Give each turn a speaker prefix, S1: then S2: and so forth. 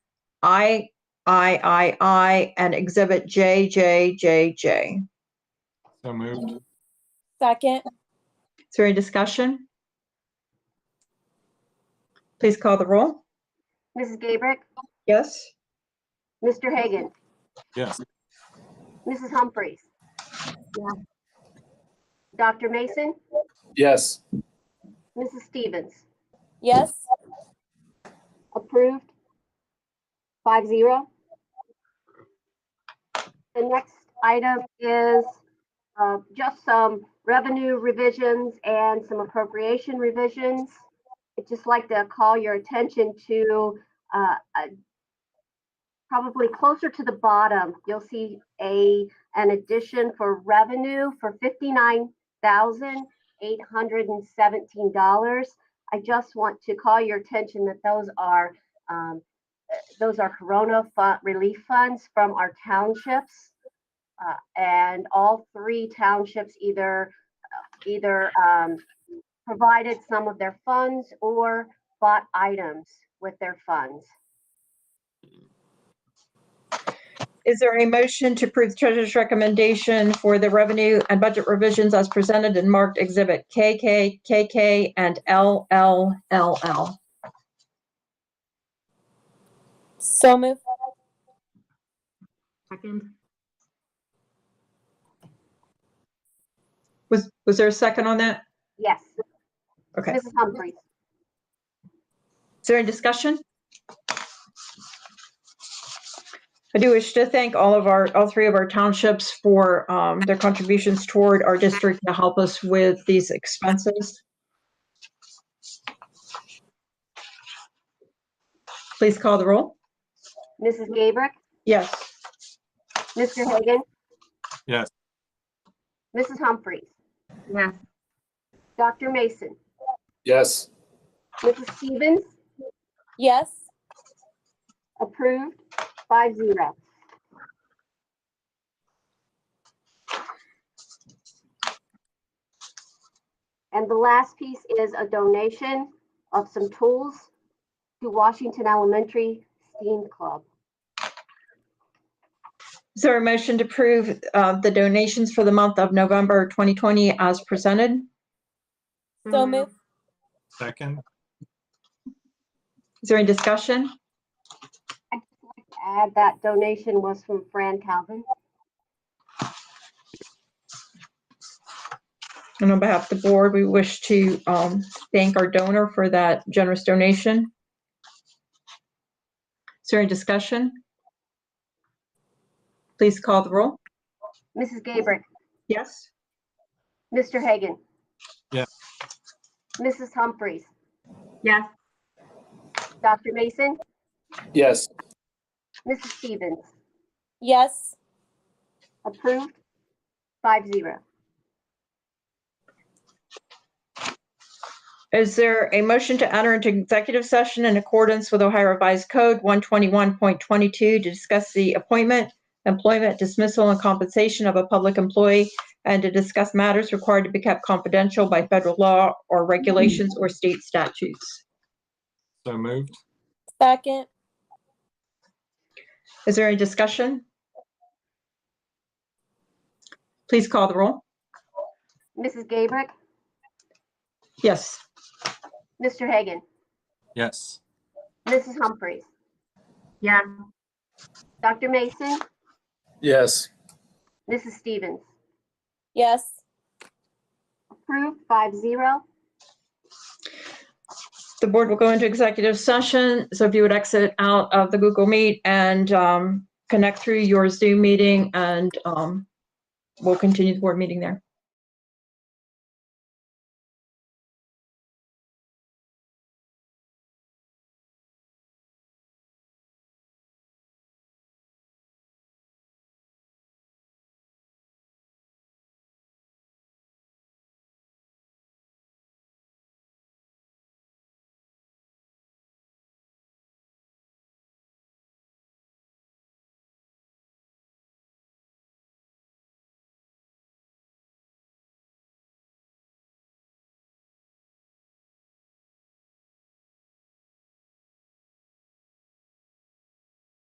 S1: I, I, I, I, and Exhibit J, J, J, J.
S2: So moved.
S3: Second,
S1: Is there any discussion? Please call the roll.
S4: Mrs. Gabrick,
S1: Yes?
S4: Mr. Hagan,
S2: Yes.
S4: Mrs. Humphries. Dr. Mason,
S5: Yes.
S4: Mrs. Stevens,
S3: yes,
S4: approved. Five zero. The next item is uh, just some revenue revisions and some appropriation revisions. I'd just like to call your attention to uh, a- probably closer to the bottom, you'll see a, an addition for revenue for $59,817. I just want to call your attention that those are, um, uh, those are Corona fu- relief funds from our townships. Uh, and all three townships either, either, um, provided some of their funds or bought items with their funds.
S1: Is there a motion to approve the treasurer's recommendation for the revenue and budget revisions as presented and marked Exhibit KK, KK, and LLLL?
S3: so move,
S1: Was, was there a second on that?
S4: Yes,
S1: Okay. Is
S4: Mrs. Humphries.
S1: there any discussion? I do wish to thank all of our, all three of our townships for um, their contributions toward our district to help us with these expenses. Please call the roll.
S4: Mrs. Gabrick,
S1: Yes.
S4: Mr. Hagan?
S2: Yes.
S4: Mrs. Humphries? Yes. Dr. Mason,
S5: Yes.
S4: Mrs. Stevens,
S3: yes,
S4: approved, five zero. And the last piece is a donation of some tools to Washington Elementary STEAM Club.
S1: Is there a motion to approve uh, the donations for the month of November 2020 as presented?
S3: so move,
S2: Second.
S1: Is there any discussion?
S4: I'd just like to add that donation was from Fran Calvin.
S1: And on behalf of the board, we wish to um, thank our donor for that generous donation. Is there any discussion? Please call the roll.
S4: Mrs. Gabrick,
S1: Yes.
S4: Mr. Hagan.
S2: Yes.
S4: Mrs. Humphries. Yes. Dr. Mason,
S5: Yes.
S4: Mrs. Stevens,
S3: yes,
S4: approved, five zero.
S1: Is there a motion to enter into executive session in accordance with Ohio Revised Code 121.22 to discuss the appointment, employment dismissal, and compensation of a public employee, and to discuss matters required to be kept confidential by federal law or regulations or state statutes?
S2: So moved.
S3: second,
S1: Is there any discussion? Please call the roll.
S4: Mrs. Gabrick,
S1: Yes.
S4: Mr. Hagan,
S2: Yes.
S4: Mrs. Humphries. Yes. Dr. Mason,
S5: Yes.
S4: Mrs. Stevens,
S3: yes,
S4: approved, five zero.
S1: The board will go into executive session, so if you would exit out of the Google Meet and um, connect through your Zoom meeting and um, we'll continue the board meeting there.